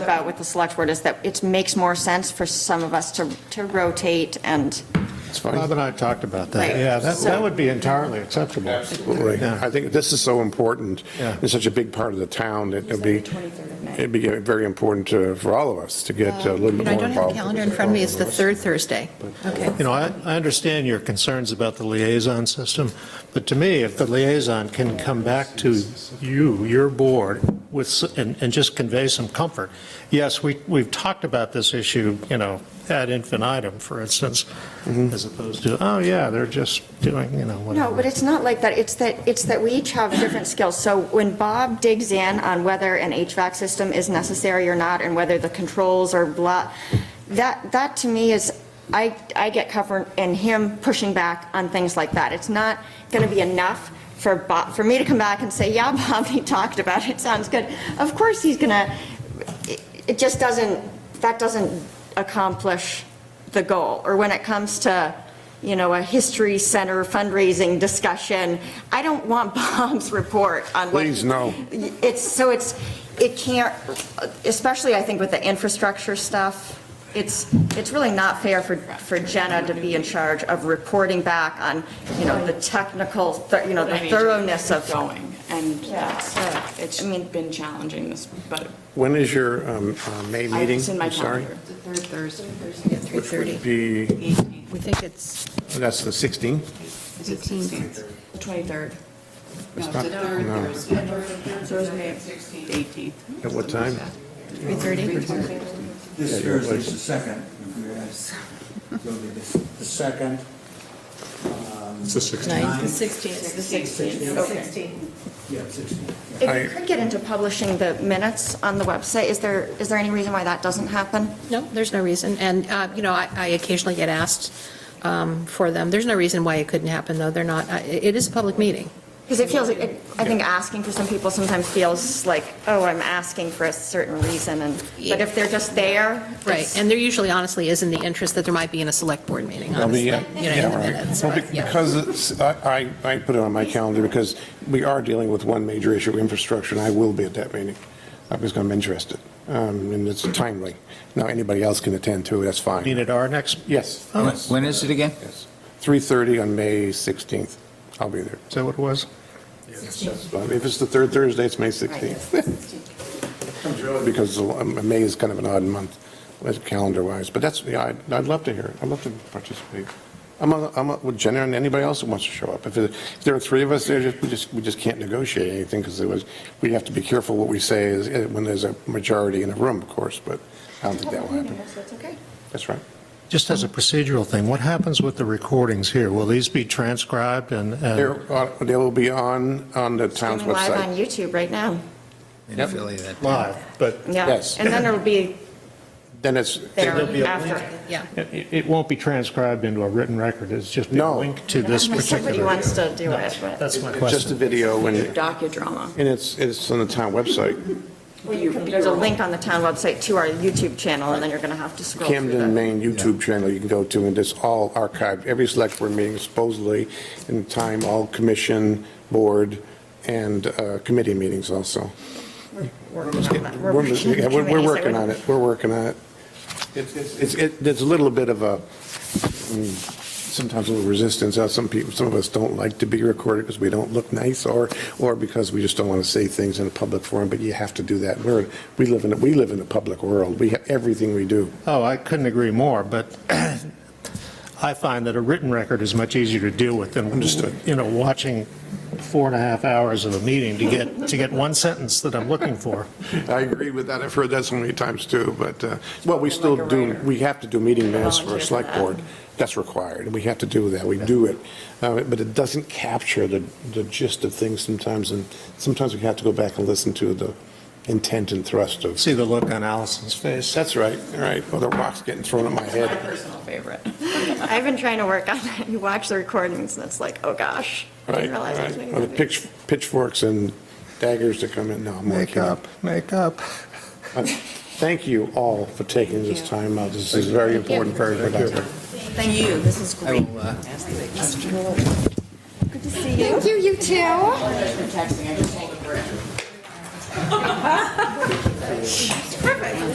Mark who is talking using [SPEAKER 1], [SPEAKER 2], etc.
[SPEAKER 1] about with the select board is that it makes more sense for some of us to, to rotate and,
[SPEAKER 2] It's fine.
[SPEAKER 3] Bob and I have talked about that.
[SPEAKER 1] Right.
[SPEAKER 3] Yeah, that, that would be entirely acceptable.
[SPEAKER 2] Right.
[SPEAKER 3] Yeah.
[SPEAKER 2] I think this is so important,
[SPEAKER 3] Yeah.
[SPEAKER 2] it's such a big part of the town, that it'd
[SPEAKER 1] It's like
[SPEAKER 2] be,
[SPEAKER 1] the 23rd of May.
[SPEAKER 2] it'd be very important to- for all of us to get uh, a little
[SPEAKER 4] Um,
[SPEAKER 2] bit
[SPEAKER 4] You know,
[SPEAKER 2] more
[SPEAKER 4] I don't have the
[SPEAKER 2] involved.
[SPEAKER 4] calendar in front of me, it's the third Thursday. Okay.
[SPEAKER 3] You know, I, I understand your concerns about the liaison system, but to me, if the liaison can come back to you, your board, with, s- and, and just convey some comfort. Yes, we, we've talked about this issue, you know, ad infinitum, for instance, as opposed to, oh, yeah, they're just doing, you know, whatever.
[SPEAKER 1] Mm-hmm. no, but it's not like that. It's that, it's that we each have different skills. So when Bob digs in on whether an HVAC system is necessary or not and whether the controls are blah, that, that to me is, I, I get covered in him pushing back on things like that. It's not going to be enough for Bob, for me to come back and say, yeah, Bob, he talked about it, sounds good. Of course he's going to, it just doesn't, that doesn't accomplish the goal. Or when it comes to, you know, a history center fundraising discussion, I don't want Bob's report on what.
[SPEAKER 2] Please, no.
[SPEAKER 1] It's, so it's, it can't, especially I think with the infrastructure stuff, it's, it's really not fair for, for Jenna to be in charge of reporting back on, you know, the technical, thir- you know, the
[SPEAKER 5] I mean,
[SPEAKER 1] thoroughness of.
[SPEAKER 5] Going, and
[SPEAKER 1] Yeah,
[SPEAKER 5] that's,
[SPEAKER 1] so,
[SPEAKER 5] it's
[SPEAKER 1] I mean-
[SPEAKER 5] been challenging this, but
[SPEAKER 2] When is your um, uh, May
[SPEAKER 5] I-
[SPEAKER 2] meeting?
[SPEAKER 5] it's in my
[SPEAKER 2] I'm sorry.
[SPEAKER 5] calendar.
[SPEAKER 4] The third Thursday, yeah,
[SPEAKER 2] Which would
[SPEAKER 4] 3:30.
[SPEAKER 2] be,
[SPEAKER 4] We think it's
[SPEAKER 2] that's the 16th?
[SPEAKER 4] 18th.
[SPEAKER 5] The 23rd. No,
[SPEAKER 2] not-
[SPEAKER 5] the third
[SPEAKER 2] no.
[SPEAKER 5] Thursday. Thursday, 18th.
[SPEAKER 2] At what time?
[SPEAKER 4] 3:30?
[SPEAKER 6] This Thursday's the second. if you guys- it'll be The the second. It's the
[SPEAKER 4] Ninth.
[SPEAKER 5] It's the 16th.
[SPEAKER 6] Yeah, sixteenth.
[SPEAKER 1] If you could get into publishing the minutes on the website, is there, is there any reason why that doesn't happen?
[SPEAKER 4] No, there's no reason, and, uh, you know, I I occasionally get asked um, for them. There's no reason why it couldn't happen, though, they're not, I- it is a public meeting.
[SPEAKER 1] Because it feels, like it- I think asking for some people sometimes feels like, oh, I'm asking for a certain reason, and, but if they're just there.
[SPEAKER 4] Right,
[SPEAKER 1] it's-
[SPEAKER 4] and there usually honestly is in the interest that there might be in a select board meeting,
[SPEAKER 2] Well,
[SPEAKER 4] honestly.
[SPEAKER 2] the,
[SPEAKER 4] you
[SPEAKER 2] uh,
[SPEAKER 4] know, in
[SPEAKER 2] yeah,
[SPEAKER 4] the
[SPEAKER 2] right.
[SPEAKER 4] minutes,
[SPEAKER 2] Well,
[SPEAKER 4] right,
[SPEAKER 2] be-
[SPEAKER 4] yeah.
[SPEAKER 2] Because it's- I, I I put it on my calendar because we are dealing with one major issue, infrastructure, and I will be at that meeting. I'm just going to be interested, Um, and it's timely. Now, anybody else can attend too, that's
[SPEAKER 3] I mean,
[SPEAKER 2] fine.
[SPEAKER 3] at our next,
[SPEAKER 2] Yes,
[SPEAKER 3] oh, is
[SPEAKER 7] When is it again?
[SPEAKER 2] yes. 3:30 on May 16th. I'll be there.
[SPEAKER 3] that what it was?
[SPEAKER 2] Um, If it's the third Thursday, it's May 16th. Because um, May is kind of an odd month, like, calendar-wise, but that's, yeah, I'd, I'd love to hear it. I'd love to participate. I'm, a- I'm a- with Jenna and anybody else who wants to show up. If it- if there are three of us there, just- we just, we just can't negotiate anything because it was, we have to be careful what we say is, eh, when there's a majority in a room, of course, but I don't think that will happen.
[SPEAKER 1] So it's okay.
[SPEAKER 2] That's right.
[SPEAKER 3] Just as a procedural thing, what happens with the recordings here? Will these be transcribed and? and-
[SPEAKER 2] They're on- They will be on, on the town's
[SPEAKER 1] Streaming live on
[SPEAKER 2] website.
[SPEAKER 1] YouTube right now,
[SPEAKER 7] In Philly that day.
[SPEAKER 3] Live, but
[SPEAKER 1] yeah.
[SPEAKER 2] Yes.
[SPEAKER 1] And then it'll be
[SPEAKER 2] Then it's,
[SPEAKER 1] there
[SPEAKER 3] There'll be a
[SPEAKER 1] after.
[SPEAKER 4] Yeah.
[SPEAKER 3] it it won't be transcribed into a written record, it's just be
[SPEAKER 2] No.
[SPEAKER 3] linked to this
[SPEAKER 1] Unless Somebody
[SPEAKER 3] particular.
[SPEAKER 1] wants to do it, but.
[SPEAKER 3] That's my
[SPEAKER 2] it's just a
[SPEAKER 3] question.
[SPEAKER 2] video and,
[SPEAKER 5] Docudrama.
[SPEAKER 2] and it's, it's on the town website.
[SPEAKER 1] There's a link on the town website to our YouTube channel, and then you're going to have to scroll through
[SPEAKER 2] Camden,
[SPEAKER 1] the.
[SPEAKER 2] Maine YouTube channel you can go to, and it's all archived, every select board meeting supposedly, in time, all commission, board, and uh, committee meetings also. We're yeah, we're- we're working on it, we're working on it. It's, it's- it's, it- there's a little bit of a, mm, sometimes a little resistance, Uh, some people, some of us don't like to be recorded because we don't look nice, or, or because we just don't want to say things in a public forum, but you have to do that. We're, we live in, a- we live in a public world, we, have everything we do.
[SPEAKER 3] Oh, I couldn't agree more, but I find that a written record is much easier to deal with than,
[SPEAKER 2] Understood.
[SPEAKER 3] you know, watching four and a half hours of a meeting to get, to get one sentence that I'm looking for.
[SPEAKER 2] I agree with that. I've heard that so many times too, but, uh, well, we still do, we have to do meeting minutes for
[SPEAKER 1] Volunteer for
[SPEAKER 2] a select
[SPEAKER 1] that.
[SPEAKER 2] board. That's required, and we have to do that. We do it. Uh, But it doesn't capture the the gist of things sometimes, and sometimes we have to go back and listen to the intent and thrust of,
[SPEAKER 3] See the look on Allison's face?
[SPEAKER 2] that's right, all right, well, the rock's getting thrown at my
[SPEAKER 5] My
[SPEAKER 2] head.
[SPEAKER 5] personal favorite.
[SPEAKER 1] I've been trying to work on it. You watch the recordings, and it's like, oh, gosh. I
[SPEAKER 2] Right,
[SPEAKER 1] didn't realize I was
[SPEAKER 2] right.
[SPEAKER 1] doing
[SPEAKER 2] Or the
[SPEAKER 1] that.
[SPEAKER 2] pitch- pitchforks and daggers that come in, no, I'm
[SPEAKER 3] Make
[SPEAKER 2] working. Uh,
[SPEAKER 3] up, make up.
[SPEAKER 2] Thank you all for taking this time out. This is very important, very productive.
[SPEAKER 5] Thank you, this is
[SPEAKER 7] I
[SPEAKER 5] great.
[SPEAKER 7] will, uh,
[SPEAKER 1] Thank you, you too.